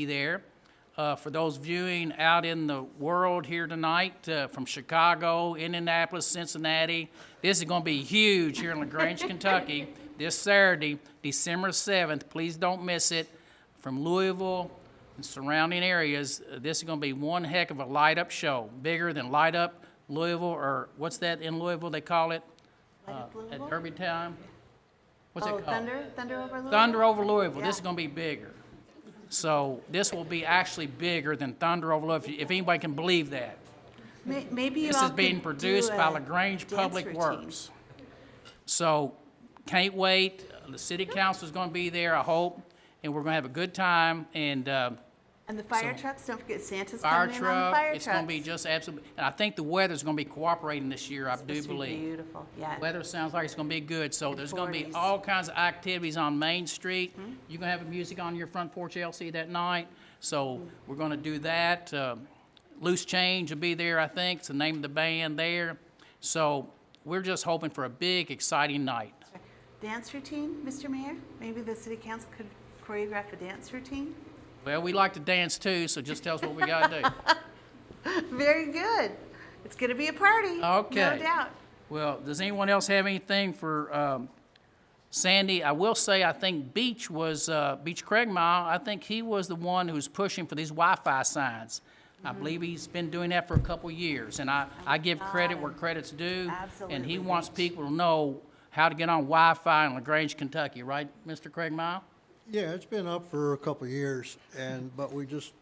be there. Uh, For those viewing out in the world here tonight, uh, from Chicago, Indianapolis, Cincinnati, this is going to be huge here in LaGrange, Kentucky, this Saturday, December 7th. Please don't miss it. From Louisville and surrounding areas, uh, this is going to be one heck of a light-up show, bigger than Light Up Louisville, or what's that in Louisville they call it? Uh, At Derby Time? What's it Oh, called? Thunder, Thunder over Louisville? Thunder over Louisville, this is Yeah. gonna be bigger. So this will be actually bigger than Thunder over Louisville, if anybody can believe that. May- Maybe you This all is could being do produced by a LaGrange dance Public routine. Works. So, can't wait, the city council is gonna be there, I hope, and we're gonna have a good time, and, uh, And the fire So- trucks, don't forget Santa's fire coming in on the truck, fire it's gonna be trucks. just absolutely, and I think the weather's gonna be cooperating this year, I do This would be believe. Beautiful, yeah. Weather sounds like it's gonna be good, so there's gonna be 40s. all kinds of activities on Main Street. You're gonna have music on your front porch, LC, that night, so we're gonna do that. Uh, Loose Change will be there, I think, it's the name of the band there. So we're just hoping for a big, exciting night. Dance routine, Mr. Mayor? Maybe the city council could choreograph a dance routine? Well, we like to dance too, so just tell us what we gotta do. Very good. It's gonna be a party. Okay. No doubt. Well, does anyone else have anything for um, Sandy? I will say, I think Beach was, uh, Beach Craigmile, I think he was the one who's pushing for these Wi-Fi signs. I Mm-hmm. believe he's been doing that for a couple years, and I, I give credit where credit's due. And Ah, Absolutely, he wants Beach. people to know how to get on Wi-Fi in LaGrange, Kentucky, right, Mr. Craigmile? Yeah, it's been up for a couple of years, and, but we just,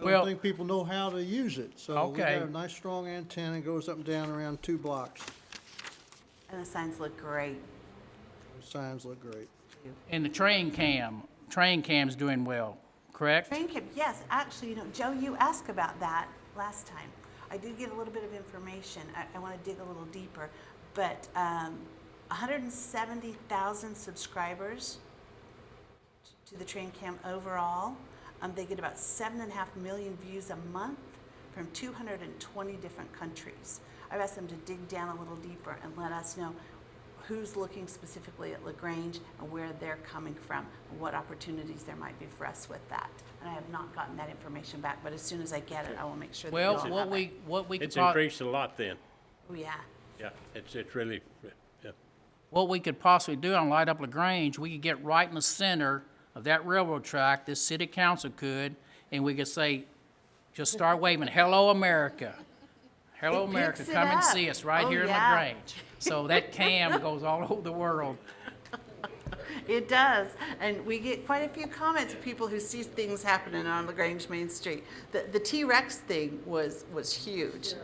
I Well- don't think people know how to use it. So we Okay. got a nice strong antenna, goes up and down around two blocks. And the signs look great. Those Signs look great. And the train cam, train cam's doing well, correct? Train camp, yes, actually, you know, Joe, you asked about that last time. I did get a little bit of information. I, I want to dig a little deeper, but um, 170,000 subscribers to the train cam overall. Um, they get about seven and a half million views a month from 220 different countries. I've asked them to dig down a little deeper and let us know who's looking specifically at LaGrange and where they're coming from, and what opportunities there might be for us with that. And I have not gotten that information back, but as soon as I get it, I will make sure that you Well, all have what it. we, what we could It's prob- increased a lot then. Oh, yeah. Yeah, it's, it's really, yeah. what we could possibly do on Light Up LaGrange, we could get right in the center of that railroad track, this city council could, and we could say, just start waving, hello, America. Hello, It America, picks it come and up. see us right Oh, here in yeah. LaGrange. So that cam goes all over the world. It does, and we get quite a few comments of people who see things happening on Lagrange Main Street. The the T Rex thing was was huge.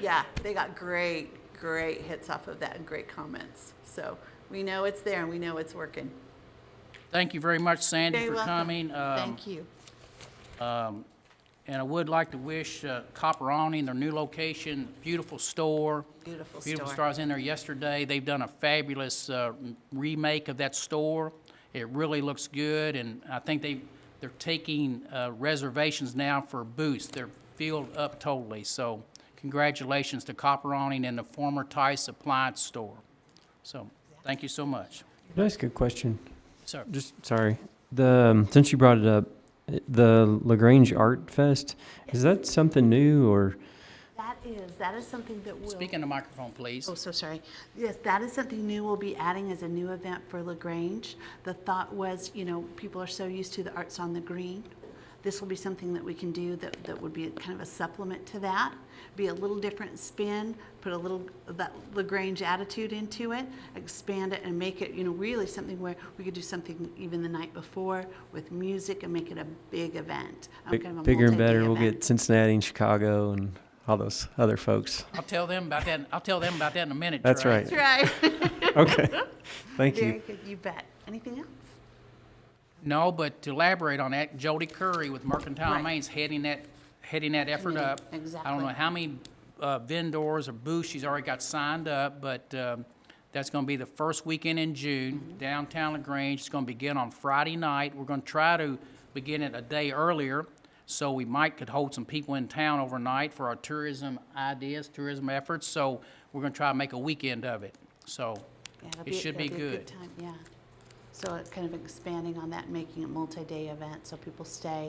Yeah, they got great great hits off of that and great comments. So we know it's there and we know it's working. Thank you very much, Sandy, Very for welcome. coming. Um, Thank you. And I would like to wish uh, Copperoni and their new location, beautiful store. Beautiful Beautiful store. store. I was in there yesterday. They've done a fabulous uh, remake of that store. It really looks good, and I think they, they're taking uh, reservations now for booths. They're filled up totally, so congratulations to Copperoni and the former Tice Appliance Store. So, thank you so much. Can I ask a question? Sir, Just sorry. The um, since you brought it up, uh, the Lagrange Art Fest is that something new or That is that is something that will. speak in the microphone, please. Oh, so sorry. Yes, that is something new we'll be adding as a new event for LaGrange. The thought was, you know, people are so used to the Arts on the Green. This will be something that we can do that, that would be kind of a supplement to that, be a little different spin, put a little of that LaGrange attitude into it, expand it and make it, you know, really something where we could do something even the night before with music and make it a big event. um, big, kind of a bigger and multi-day better? We'll event. get Cincinnati and Chicago and all those other folks. I'll tell them about that, I'll tell them about that in a minute, That's Trey. right. That's right. Okay, thank you. Very good, you bet. Anything else? No, but to elaborate on that, Jody Curry with Mercantile Right. Main's heading that, heading that effort Committee, up. I don't know exactly. how many uh, vendors or booths she's already got signed up, but um, that's going to be the first weekend in Mm-hmm. June, downtown LaGrange. It's going to begin on Friday night. We're going to try to begin it a day earlier, so we might could hold some people in town overnight for our tourism ideas, tourism efforts. So we're going to try to make a weekend of it. So Yeah, it'll it be- should be it'll a good. time, Yeah. So it kind of expanding on that, and making it multi-day event, so people stay